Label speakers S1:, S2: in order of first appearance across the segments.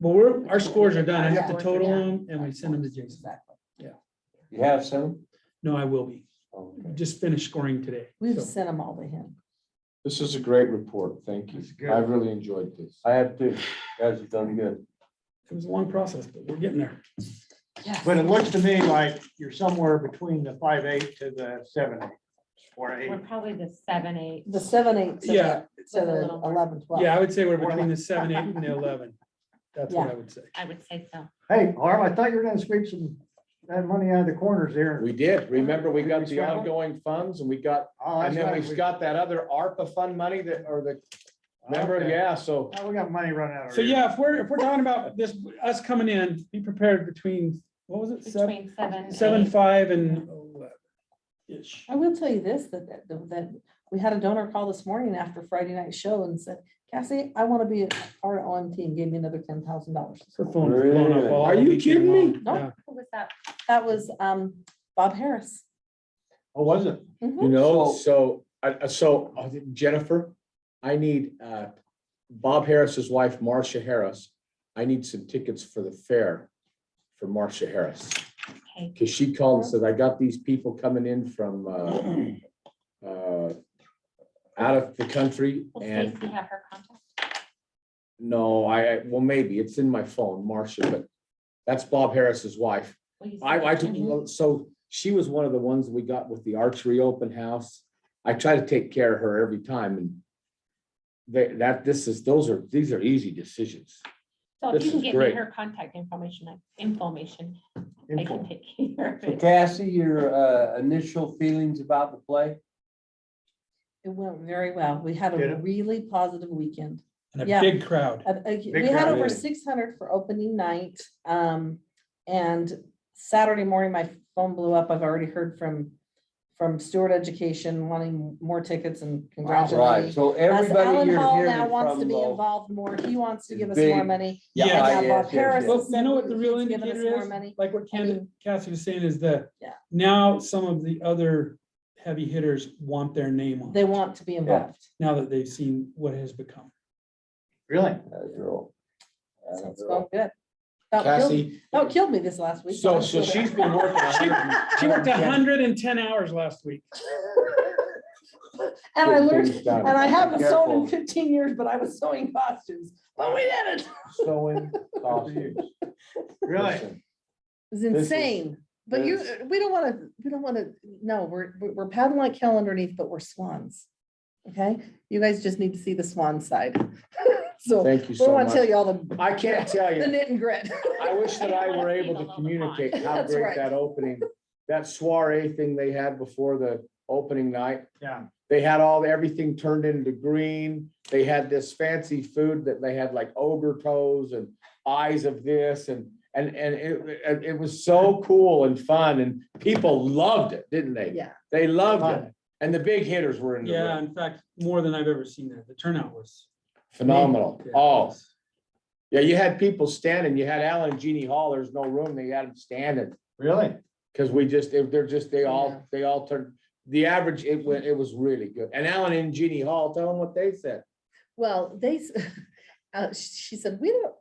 S1: But we're, our scores are done. I have to
S2: Yeah.
S1: total them and we send them to Jason.
S2: Exactly.
S3: You have some?
S1: No, I will be. Just finished scoring today.
S2: We've
S1: so.
S2: sent them all to him.
S4: This is a great report. Thank you.
S5: That's good.
S4: I really enjoyed this.
S3: I have two. Guys have done good.
S1: It was a long process, but we're getting there.
S5: But it looks to me like you're somewhere between the five eight to the seven eight or eight.
S6: We're probably the seven, eight.
S2: The seven, eight, to
S1: Yeah.
S2: the- to
S6: With a
S2: the
S6: little more.
S2: eleven, twelve.
S1: Yeah, I would say we're between the seven, eight and the eleven. That's what I would say.
S6: I would say so.
S5: Hey, Harm, I thought you were gonna sweep some, that money out of the corners here.
S4: We did. Remember, we got the
S5: Scrap them?
S4: ongoing funds and we got,
S5: Oh, that's
S4: and then
S5: right,
S4: we've
S5: we-
S4: got that other ARPA fund money that, or the, remember,
S5: okay.
S4: yeah, so.
S5: Now Oh, we got money running out. of
S1: So
S5: here.
S1: yeah, if we're, if we're talking about this, us coming in, be prepared between, what was it? Seven,
S6: Between seven.
S1: seven,
S6: eight.
S1: five and eleven. Ish.
S2: I will tell you this, that, that, that we had a donor call this morning after Friday night show and said, Cassie, I want to be a part of OMT and gave me another ten thousand dollars.
S1: Her phone was blown up
S3: Really?
S1: all
S4: Are you
S1: weekend
S4: kidding me?
S1: long.
S2: No.
S1: Yeah.
S6: Who was that?
S2: That was, um, Bob Harris.
S5: Oh, was it?
S2: Mhm.
S1: Mm-hmm.
S4: You know, so, I- I- so uh, Jennifer, I need, uh, Bob Harris's wife, Marcia Harris. I need some tickets for the fair for Marcia Harris.
S6: Okay.
S4: Cause she called and said, I got these people coming in from, uh, uh, out of the country
S6: Will
S4: and
S6: Stacy have her contact?
S4: no, I, I- well, maybe it's in my phone, Marcia, but that's Bob Harris's wife.
S6: Will you
S4: I,
S6: send
S4: I,
S6: it to
S2: Mm-hmm.
S6: me?
S4: took- so she was one of the ones we got with the archery open house. I try to take care of her every time and they, that, this is, those are, these are easy decisions.
S6: So if
S4: this
S6: you can
S4: is
S6: get
S4: great.
S6: me her contact information, I- information, I
S5: Info.
S6: can take care of
S3: So
S6: it.
S3: Cassie, your uh, initial feelings about the play?
S2: It went very well. We had
S5: Did
S2: a
S5: it?
S2: really positive weekend.
S1: And a
S2: Yeah.
S1: big crowd.
S2: Uh, uh,
S5: Big
S2: We had
S5: crowd,
S2: over
S3: yeah.
S2: six hundred for opening night. Um, and Saturday morning, my phone blew up. I've already heard from, from Stewart Education wanting more tickets and
S3: Right,
S2: congratulating.
S3: so
S2: As
S3: everybody
S2: Alan
S3: you're
S2: Hall
S3: hearing
S2: now wants to
S3: from.
S2: be
S3: though-
S2: involved more. He wants to
S3: is
S2: give us more
S3: big.
S2: money.
S1: Yeah,
S2: And
S1: I-
S2: now
S3: yes,
S2: Bob
S3: yes,
S2: Harris
S3: yes.
S2: has
S1: Well, you know
S2: said
S1: what the real
S2: he's given us
S1: indicator
S2: more
S1: is?
S2: money.
S1: Like what
S2: I
S1: Ken,
S2: mean-
S1: Cassie was saying is that
S2: Yeah.
S1: now some of the other heavy hitters want their name on,
S2: They
S1: it,
S2: want to be involved.
S1: now that they've seen what it has become.
S5: Really?
S3: That girl. That
S2: So it's
S3: girl.
S2: going good. About killed,
S4: Cassie,
S2: about killed me this last week.
S4: so, so she's been working. a hundred and-
S1: She worked hundred and ten hours last week.
S2: And I
S4: Get
S2: learned,
S4: things done.
S2: and I haven't sewn
S3: Careful.
S2: in fifteen years, but I was sewing costumes. But we did it.
S3: Sewing costumes.
S5: Really?
S3: Listen,
S2: It's
S3: This is-
S2: insane. But you,
S3: this-
S2: we don't want to, we don't want to, no, we're, we're we're paddling like hell underneath, but we're swans. Okay? You guys just need to see the swan side. So we
S4: Thank you so
S2: want to tell
S4: much.
S2: you all the,
S4: I can't tell
S2: the
S4: you.
S2: knit and grit.
S4: I wish that I were able to communicate how
S2: That's
S4: great
S2: right.
S4: that opening, that soiree thing they had before the opening night.
S5: Yeah.
S4: They had all, everything turned into green. They had this fancy food that they had like ogre toes and eyes of this and, and, and it, and it was so cool and fun and people loved it, didn't they?
S2: Yeah.
S4: They loved it. And the big hitters were in the
S1: Yeah,
S4: room.
S1: in fact, more than I've ever seen that. The turnout was.
S4: Phenomenal.
S1: Yeah, it
S4: Oh,
S1: was.
S4: yeah, you had people standing. You had Alan and Jeannie Hall. There's no room. They had them standing.
S5: Really?
S4: Cause we just, they- they're just, they
S2: Yeah.
S4: all, they all turned, the average, it went, it was really good. And Alan and Jeannie Hall, tell them what they said.
S2: Well, they, s- uh, sh- she said, we don't,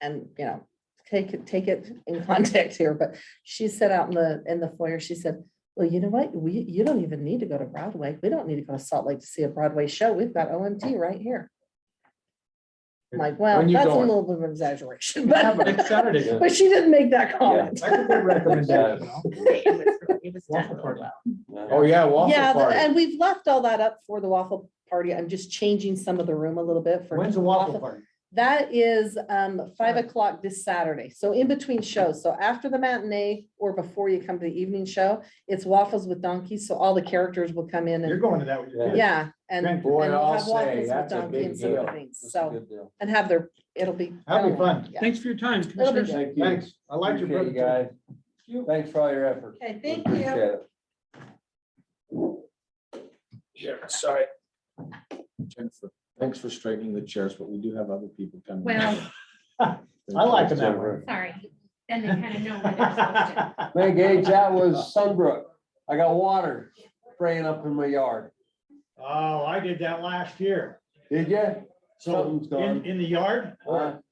S2: and, you know, take it, take it in context here, but she said out in the, in the foyer, she said, well, you know what, we, you don't even need to go to Broadway. We don't need to go to Salt Lake to see a Broadway show. We've got OMT right here. I'm Like, well,
S4: When you
S2: that's a
S4: going?
S2: little bit of an exaggeration,
S5: Yeah, but
S2: but,
S5: it's Saturday.
S2: but she didn't make that comment.
S5: That's a good recommendation.
S3: Yes.
S6: It was really- it was
S5: Waffle
S6: done really
S5: party.
S6: well.
S4: Oh, yeah, waffle
S2: Yeah, th-
S4: party.
S2: and we've left all that up for the waffle party. I'm just changing some of the room a little bit for.
S5: When's the waffle party?
S2: That is um five
S5: Saturday.
S2: o'clock this Saturday, so in between shows, so after the matinee or before you come to the evening show, it's waffles with donkeys, so all the characters will come in
S5: You're
S2: and,
S5: going to that with your kids.
S2: yeah, and. and
S5: Grand-
S4: Boy,
S2: we'll
S4: I'll
S2: have
S4: say,
S2: waffles with
S4: that's a
S2: donkeys
S4: big
S2: and some
S4: deal.
S2: other things,
S3: That's a
S2: So,
S3: good deal.
S2: and have their, it'll be.
S5: That'll be
S2: I don't know,
S5: fun.
S2: yeah.
S1: Thanks for your time,
S2: Little bit
S1: commissioners.
S3: Thank you.
S5: Thanks. I like your.
S3: Appreciate you
S5: brother.
S3: guys. Thanks for all your effort.
S2: Okay,
S3: We
S2: thank you.
S3: appreciate it.
S4: Yeah, sorry. Jennifer, Thanks for straightening the chairs, but we do have other people coming.
S6: Well,
S5: I like them that way.
S6: sorry. Then they kind of know where they're supposed to.
S3: Man, Gage, that was Sunbrook. I got water spraying up in my yard.
S5: Oh, I did that last year.
S3: Did you?
S5: So
S3: Something's
S5: in,
S3: gone.
S5: in the yard,
S3: Or